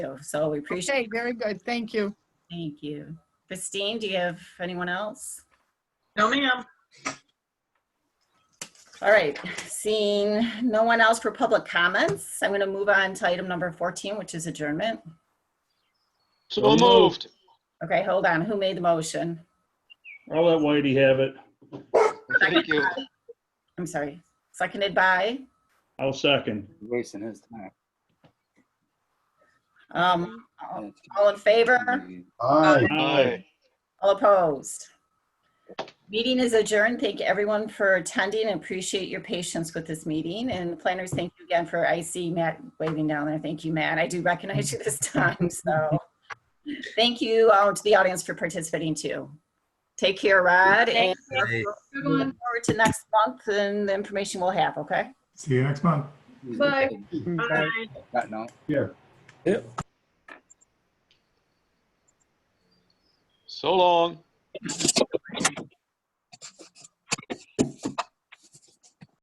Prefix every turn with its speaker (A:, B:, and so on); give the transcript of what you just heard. A: So- So we appreciate,
B: Okay, very good. Thank you.
A: thank you. Christine, do you have anyone else?
C: No, ma'am.
A: All right, seeing no one else for public comments, I'm going to move on to item number 14, which is adjournment.
D: So moved.
A: Okay, hold on. Who made the motion?
E: I'll let Whitey have it.
D: Thank you.
A: I'm sorry. Seconded by,
E: I'll second.
F: Wasting his time.
A: um, all in favor?
G: Aye.
D: Aye.
A: All opposed? Meeting is adjourned. Thank everyone for attending and appreciate your patience with this meeting. And planners, thank you again for, I see Matt waving down there. Thank you, Matt. I do recognize you this time, so. Thank you all to the audience for participating too. Take care, Rod, and
B: Good
A: look
B: one.
A: forward to next month and the information we'll have, okay?
G: See you next month.
B: Bye.
C: Bye.
F: Not now.
D: So long.